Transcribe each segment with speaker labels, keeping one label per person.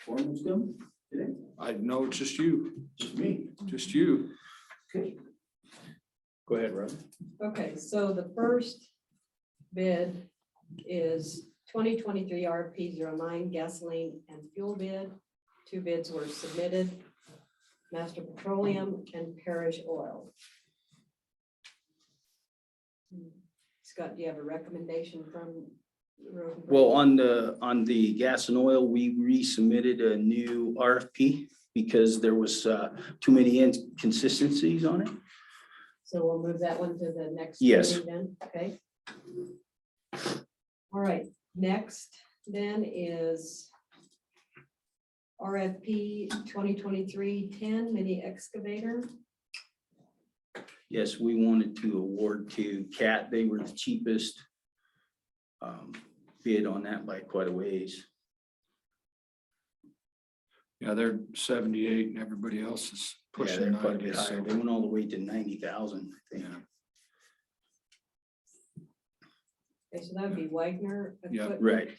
Speaker 1: appointments done today?
Speaker 2: I know, it's just you,
Speaker 1: Just me.
Speaker 2: just you.
Speaker 1: Okay. Go ahead, Rob.
Speaker 3: Okay, so the first bid is twenty twenty-three RP 9 gasoline and fuel bid. Two bids were submitted, Master Petroleum and Parish Oil. Scott, do you have a recommendation from? the road and
Speaker 4: Well, on the, on the gas and oil, we resubmitted a new RFP because there was uh, too many inconsistencies on it.
Speaker 3: So we'll move that one to the next.
Speaker 4: Yes.
Speaker 3: meeting Then, okay. All right, next then is RFP 2023-10 mini excavator.
Speaker 4: Yes, we wanted to award to CAT. They were the cheapest um, bid on that by quite a ways.
Speaker 2: Yeah, they're seventy-eight and everybody else is
Speaker 4: Yeah, they're
Speaker 2: pushing
Speaker 4: quite a
Speaker 2: ninety.
Speaker 4: bit higher.
Speaker 2: so-
Speaker 4: They went all the way to ninety thousand, I think.
Speaker 2: Yeah.
Speaker 3: Okay, so that would be Wagner.
Speaker 2: Yeah,
Speaker 3: Equipment
Speaker 4: Right,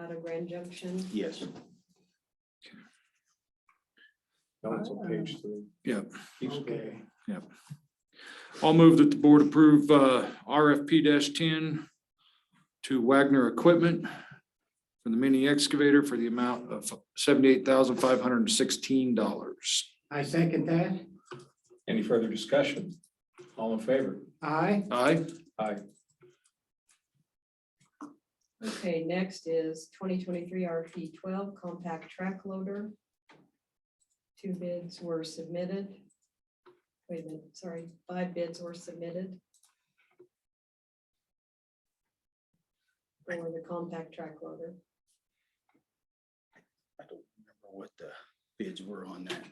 Speaker 3: Out of Grand Junction.
Speaker 4: yes.
Speaker 5: No, it's
Speaker 4: Ah.
Speaker 5: on page three.
Speaker 2: Yeah.
Speaker 5: Keep scanning.
Speaker 2: I'll move that the board approve uh, RFP ten to Wagner Equipment for the mini excavator for the amount of seventy-eight thousand five hundred and sixteen dollars.
Speaker 1: I second that.
Speaker 5: Any further discussion? All in favor?
Speaker 1: Aye.
Speaker 2: Aye,
Speaker 3: Okay, next is twenty twenty-three RP twelve compact track loader. Two bids were submitted. Wait a minute, sorry, five bids were submitted. For the compact track loader.
Speaker 4: I don't remember what the bids were on that.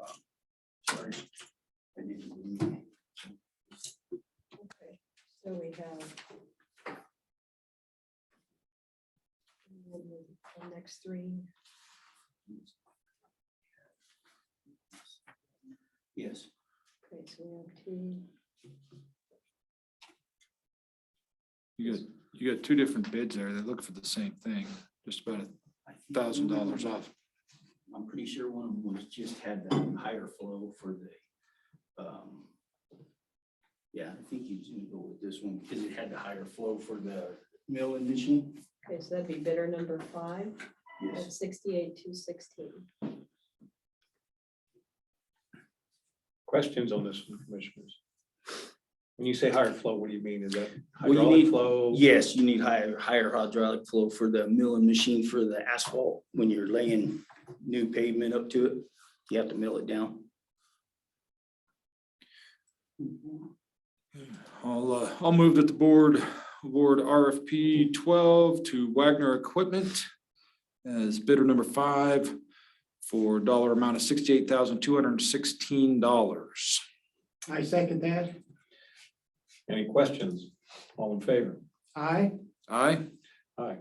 Speaker 4: Um, Sorry. I need to read.
Speaker 3: Okay, So we have. The next three,
Speaker 4: Yes.
Speaker 3: okay, so we have two.
Speaker 2: you got, you got two different bids there. They look for the same thing, just about a
Speaker 4: I think-
Speaker 2: thousand dollars off.
Speaker 4: I'm pretty sure one of them was just had the higher flow for the, um, yeah, I think he was gonna go with this one because it had the higher flow for the mill and machine.
Speaker 3: Okay, so that'd be bidder number five.
Speaker 4: Yes,
Speaker 3: At sixty-eight, two sixteen.
Speaker 5: Questions on this, one, commissioners? When you say higher flow, what do you mean? Is that
Speaker 4: Well, you
Speaker 5: hydraulic
Speaker 4: need-
Speaker 5: flow?
Speaker 4: yes, you need higher, higher hydraulic flow for the mill and machine for the asphalt. When you're laying new pavement up to it, you have to mill it down.
Speaker 2: I'll, uh, I'll move that the board award RFP twelve to Wagner Equipment as bidder number five for dollar amount of sixty-eight thousand two hundred and sixteen dollars.
Speaker 1: I second that.
Speaker 5: Any questions? All in favor?
Speaker 1: Aye.
Speaker 2: Aye,
Speaker 5: Aye.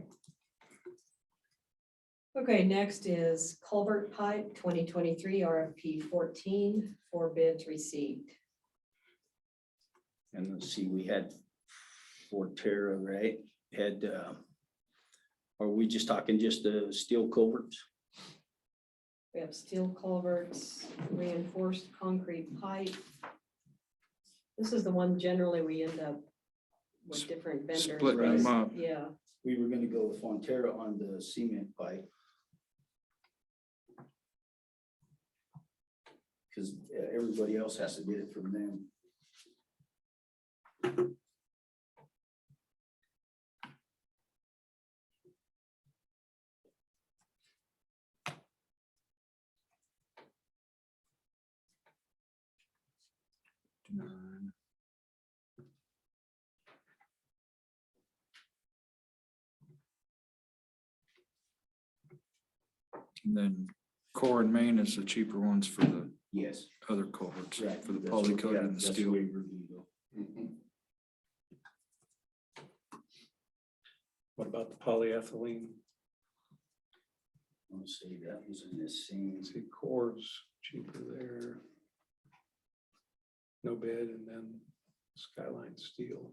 Speaker 3: Okay, next is culvert pipe, twenty twenty-three RFP 14 four bids received.
Speaker 4: And let's see, we had Forterra, right? Had, uh, are we just talking just the steel culverts?
Speaker 3: We have steel culverts, reinforced concrete pipe. This is the one generally we end up with different vendors.
Speaker 2: splitting
Speaker 4: them
Speaker 3: because-
Speaker 2: up.
Speaker 3: Yeah,
Speaker 4: we were gonna go with Fonterra on the cement pipe. Cause uh, everybody else has to get it from them.
Speaker 2: and then Core and Main is the cheaper ones for the
Speaker 4: Yes.
Speaker 2: other culverts,
Speaker 4: right,
Speaker 2: for the
Speaker 4: that's what-
Speaker 2: poly coated
Speaker 4: yeah,
Speaker 2: and the
Speaker 4: that's
Speaker 2: steel.
Speaker 4: way we're gonna go. Mm-hmm.
Speaker 5: What about the polyethylene?
Speaker 4: Let's see, that was in the same.
Speaker 5: Let's see, cores cheaper there. No bid and then skyline steel.